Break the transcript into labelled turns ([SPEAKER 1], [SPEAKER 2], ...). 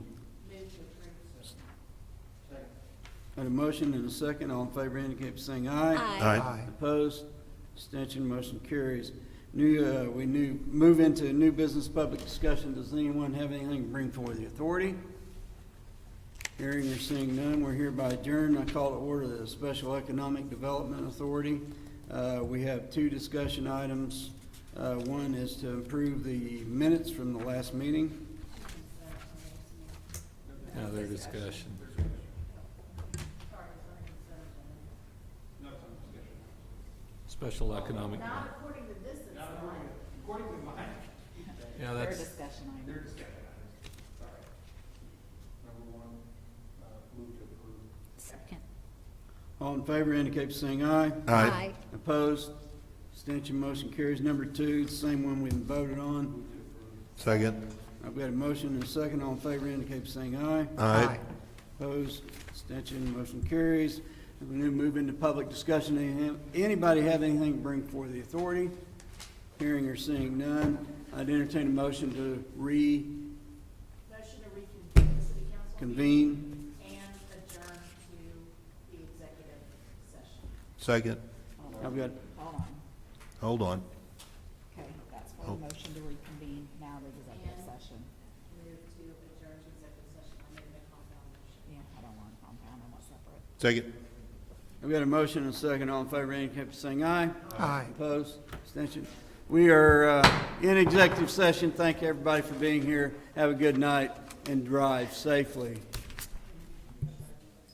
[SPEAKER 1] Had a motion and a second, all in favor indicate by saying aye.
[SPEAKER 2] Aye. Aye.
[SPEAKER 1] Opposed, abstention, motion carries. New, uh, we new, move into new business public discussion. Does anyone have anything to bring forward the authority? Hearing or seeing none, we're hereby adjourned. I call to order the Special Economic Development Authority. Uh, we have two discussion items. Uh, one is to improve the minutes from the last meeting.
[SPEAKER 3] Another discussion. Special economic. Not according to this, it's
[SPEAKER 4] discussion item. Second.
[SPEAKER 1] All in favor indicate by saying aye.
[SPEAKER 2] Aye.
[SPEAKER 1] Opposed? Abstention, motion carries. Number two, the same one we've voted on.
[SPEAKER 2] Second.
[SPEAKER 1] I've got a motion and a second. All in favor indicate by saying aye.
[SPEAKER 2] Aye.
[SPEAKER 1] Opposed? Abstention, motion carries. We now move into public discussion. Any- Anybody have anything to bring before the authority? Hearing or seeing none, I'd entertain a motion to reconvene
[SPEAKER 5] Motion to reconvene the city council and adjourn to the executive session.
[SPEAKER 2] Second.
[SPEAKER 1] I've got,
[SPEAKER 4] Hold on.
[SPEAKER 2] Hold on.
[SPEAKER 4] Okay, that's for the motion to reconvene now the executive session.
[SPEAKER 5] Move to adjourn to executive session. I made the compound motion.
[SPEAKER 4] Yeah, I don't want compound, I want separate.
[SPEAKER 2] Second.
[SPEAKER 1] I've got a motion and a second. All in favor indicate by saying aye. Aye. Opposed? Abstention? We are uh, in executive session. Thank everybody for being here. Have a good night and drive safely.